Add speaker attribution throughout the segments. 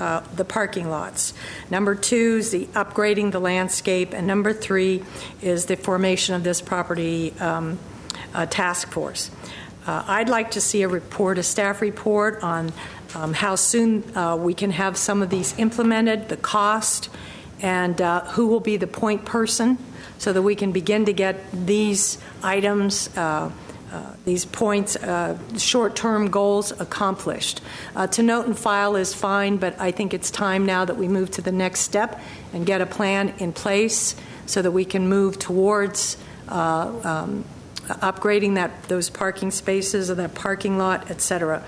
Speaker 1: uh, the parking lots. Number two is the upgrading the landscape, and number three is the formation of this property um, uh, task force. Uh, I'd like to see a report, a staff report on um, how soon uh, we can have some of these implemented, the cost, and uh, who will be the point person, so that we can begin to get these items, uh, uh, these points, uh, short-term goals accomplished. Uh, To note and file is fine, but I think it's time now that we move to the next step and get a plan in place so that we can move towards uh, um, upgrading that, those parking spaces or that parking lot, et cetera.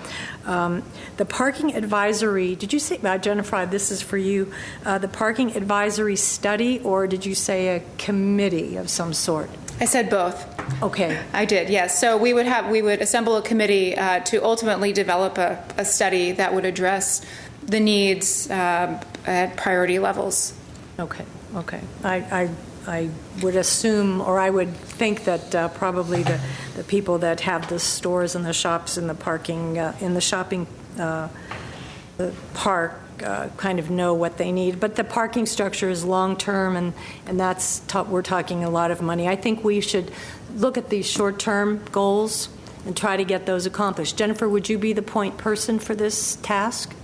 Speaker 1: Um, The parking advisory, did you say, uh, Jennifer, this is for you, uh, the parking advisory study, or did you say a committee of some sort?
Speaker 2: I said both.
Speaker 1: Okay,
Speaker 2: I did, yes. So we would have, we would assemble a committee uh, to ultimately develop a, a study that would address the needs um, at priority levels.
Speaker 1: okay, okay. I, I, I would assume, or I would think that uh, probably the, the people that have the stores and the shops and the parking, uh, in the shopping uh, the park uh, kind of know what they need, but the parking structure is long-term, and, and that's, ta- we're talking a lot of money. I think we should look at these short-term goals and try to get those accomplished. Jennifer, would you be the point person for this task?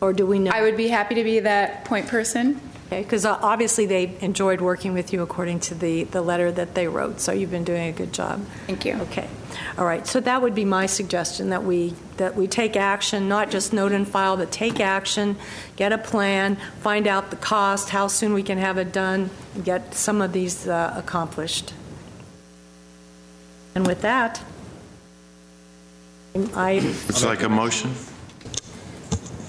Speaker 1: Or do we know?
Speaker 2: I would be happy to be that point person.
Speaker 1: Because uh, obviously, they enjoyed working with you according to the, the letter that they wrote, so you've been doing a good job.
Speaker 2: Thank you.
Speaker 1: Okay, all right, so that would be my suggestion, that we, that we take action, not just note and file, but take action, get a plan, find out the cost, how soon we can have it done, and get some of these uh, accomplished. And with that, I,
Speaker 3: It's like a motion?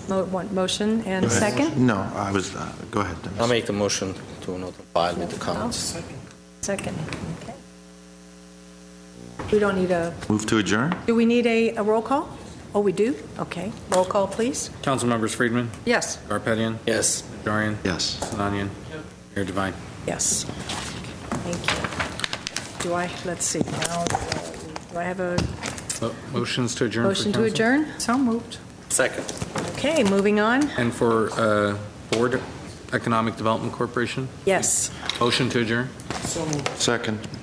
Speaker 1: mo- want motion and second?
Speaker 3: No, I was, uh, go ahead. Dennis.
Speaker 4: I'll make a motion to not file with the comments.
Speaker 1: Second, okay. We don't need a
Speaker 3: Move to adjourn?
Speaker 1: Do we need a, a roll call? Oh, we do? Okay. Roll call, please.
Speaker 5: Council members: Friedman,
Speaker 1: Yes.
Speaker 5: Garpetian,
Speaker 4: Yes.
Speaker 5: Najarian,
Speaker 3: Yes.
Speaker 5: Sinanian, Mayor Devine.
Speaker 1: Yes. Thank you. Do I, let's see, now, uh, do I have a
Speaker 5: Mo- Motions to adjourn. for
Speaker 1: motion to
Speaker 5: council?
Speaker 1: adjourn? So moved.
Speaker 4: Second.
Speaker 1: Okay, moving on.
Speaker 5: And for uh, Board Economic Development Corporation,
Speaker 1: Yes.
Speaker 5: motion to adjourn.
Speaker 3: Second.